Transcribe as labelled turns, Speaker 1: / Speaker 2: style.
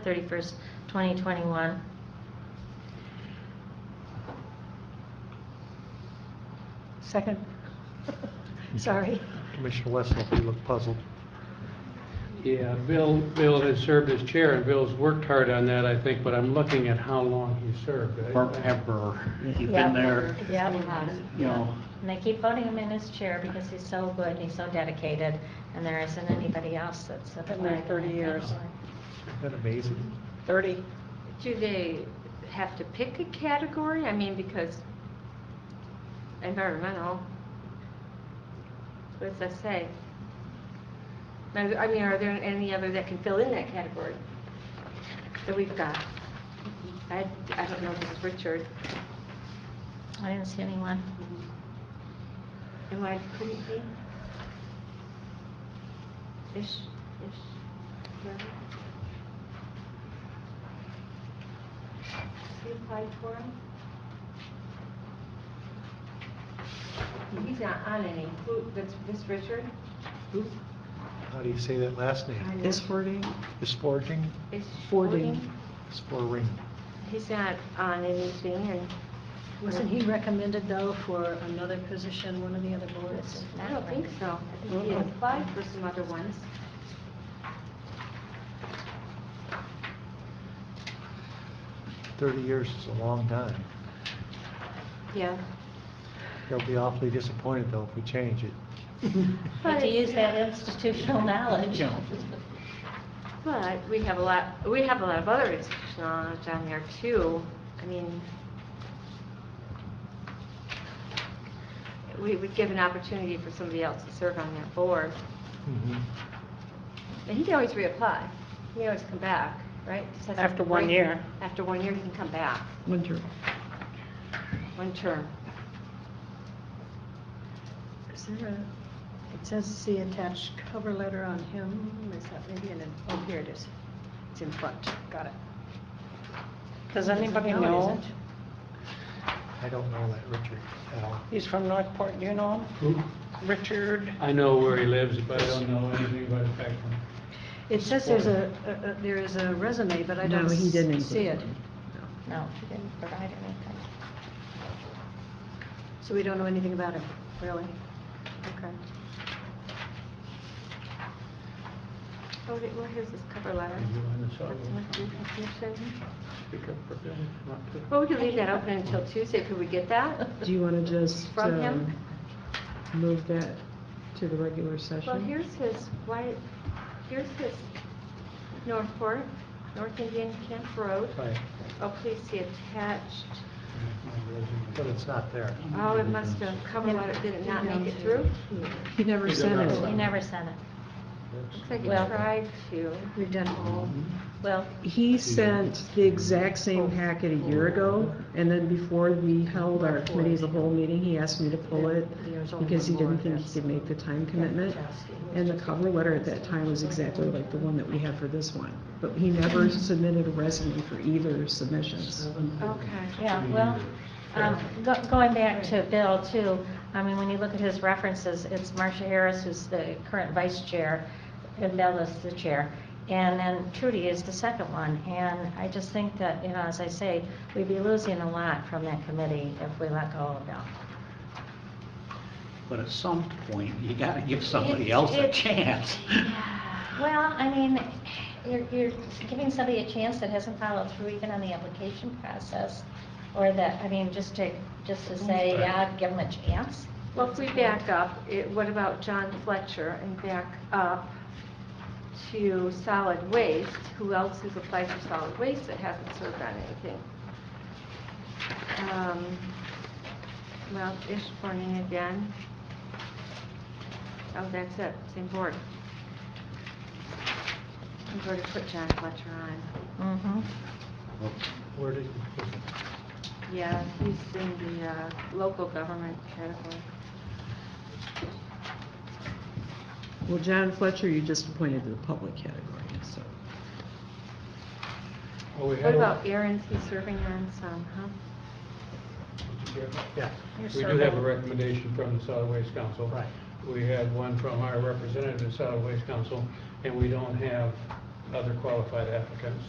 Speaker 1: December 31st, 2021.
Speaker 2: Second. Sorry.
Speaker 3: Commissioner Wessel, you look puzzled.
Speaker 4: Yeah, Bill, Bill has served as chair, and Bill's worked hard on that, I think, but I'm looking at how long he served. I-
Speaker 5: forever. He's
Speaker 2: Yeah.
Speaker 5: been there,
Speaker 2: Yeah.
Speaker 5: you know,
Speaker 1: And they keep voting him in his chair because he's so good and he's so dedicated, and there isn't anybody else that's...
Speaker 2: Been there 30 years.
Speaker 3: Isn't that amazing?
Speaker 2: 30.
Speaker 6: Do they have to pick a category? I mean, because environmental, what does that say? Now, I mean, are there any other that can fill in that category that we've got? I, I don't know, if this is Richard,
Speaker 1: I didn't see anyone.
Speaker 6: and why couldn't he? Ish, ish, no? Has he applied for him? He's not on any, who, that's, this Richard? Who?
Speaker 3: How do you say that last
Speaker 6: I
Speaker 3: name?
Speaker 6: know.
Speaker 2: wording?
Speaker 3: Is forging,
Speaker 6: Ish
Speaker 2: Fording.
Speaker 6: Fording?
Speaker 3: is forring.
Speaker 6: He's not on anything, and
Speaker 2: Wasn't he recommended, though, for another position, one of the other boards?
Speaker 6: I don't think so. I think he applied for some other ones.
Speaker 3: Thirty years is a long time.
Speaker 6: Yeah.
Speaker 3: They'll be awfully disappointed though if we change it.
Speaker 1: Had to use that institutional knowledge.
Speaker 5: Yeah.
Speaker 6: But we have a lot, we have a lot of other institutional knowledge on there too. I mean, we would give an opportunity for somebody else to serve on that board.
Speaker 3: Mhm.
Speaker 6: And he can always reapply. He can always come back, right? Just has to
Speaker 7: After one
Speaker 6: break-
Speaker 7: year.
Speaker 6: After one year, he can come back,
Speaker 7: Winter.
Speaker 6: one term.
Speaker 2: Is there a, it says the attached cover letter on him, is that maybe an, oh, here it is. It's in front, got it.
Speaker 7: Does anybody
Speaker 2: No, it
Speaker 7: know?
Speaker 2: isn't.
Speaker 3: I don't know that Richard at all.
Speaker 7: He's from Northport, do you know him?
Speaker 4: Who?
Speaker 7: Richard,
Speaker 4: I know where he lives, but I don't know anything about his background.
Speaker 2: It says there's a, a- a- there is a resume, but I don't
Speaker 7: he didn't
Speaker 2: s- see it.
Speaker 1: No, he didn't provide anything.
Speaker 2: So we don't know anything about him, really? Okay.
Speaker 6: Oh, wait, where is this cover letter?
Speaker 4: You want to sort of
Speaker 6: Must be information.
Speaker 4: speak up for Bill? Not to-
Speaker 6: Well, we could leave that open until Tuesday. Could we get that
Speaker 8: Do you want to just
Speaker 6: from him?
Speaker 8: um, move that to the regular
Speaker 6: Well,
Speaker 8: session?
Speaker 6: here's his, why, here's his Northport, North Indian Camp Road.
Speaker 3: Right,
Speaker 6: Oh, please see attached.
Speaker 3: but it's not there.
Speaker 6: Oh, it must have cover letter, did it not make it through?
Speaker 8: He never sent
Speaker 1: He
Speaker 8: it.
Speaker 1: never sent it.
Speaker 6: Looks like it
Speaker 1: Well-
Speaker 6: tried to.
Speaker 2: We've done all.
Speaker 1: Well,
Speaker 8: He sent the exact same packet a year ago, and then before we held our committee as a whole meeting, he asked me to pull it because he didn't think he could make the time commitment. And the cover letter at that time was exactly like the one that we have for this one, but he never submitted a resume for either submissions.
Speaker 6: Okay.
Speaker 1: Yeah, well, um, go- going back to Bill too, I mean, when you look at his references, it's Marcia Harris who's the current vice chair, and Bill is the chair, and then Trudy is the second one. And I just think that, you know, as I say, we'd be losing a lot from that committee if we let go of Bill.
Speaker 5: but at some point, you gotta give somebody else a
Speaker 1: It's-
Speaker 5: chance.
Speaker 1: Well, I mean, you're, you're giving somebody a chance that hasn't followed through even on the application process, or that, I mean, just to, just to say, yeah, give them a chance.
Speaker 6: Well, if we back up, it- what about John Fletcher and back up to solid waste? Who else has applied for solid waste that hasn't served on anything? Um, Well, Ishburne again. Oh, that's it, same board. I'm going to put John Fletcher on.
Speaker 1: Mm-hmm.
Speaker 3: Where did,
Speaker 6: Yeah, he's in the uh, local government category.
Speaker 8: Well, John Fletcher, you just appointed to the public category, so.
Speaker 4: Well, Oh, we
Speaker 6: What
Speaker 4: had a-
Speaker 6: about Aaron's, he's serving on some, huh?
Speaker 3: yeah,
Speaker 4: We do have a recommendation from the Solid Waste Council.
Speaker 3: Right.
Speaker 4: We had one from our representative in Solid Waste Council, and we don't have other qualified applicants.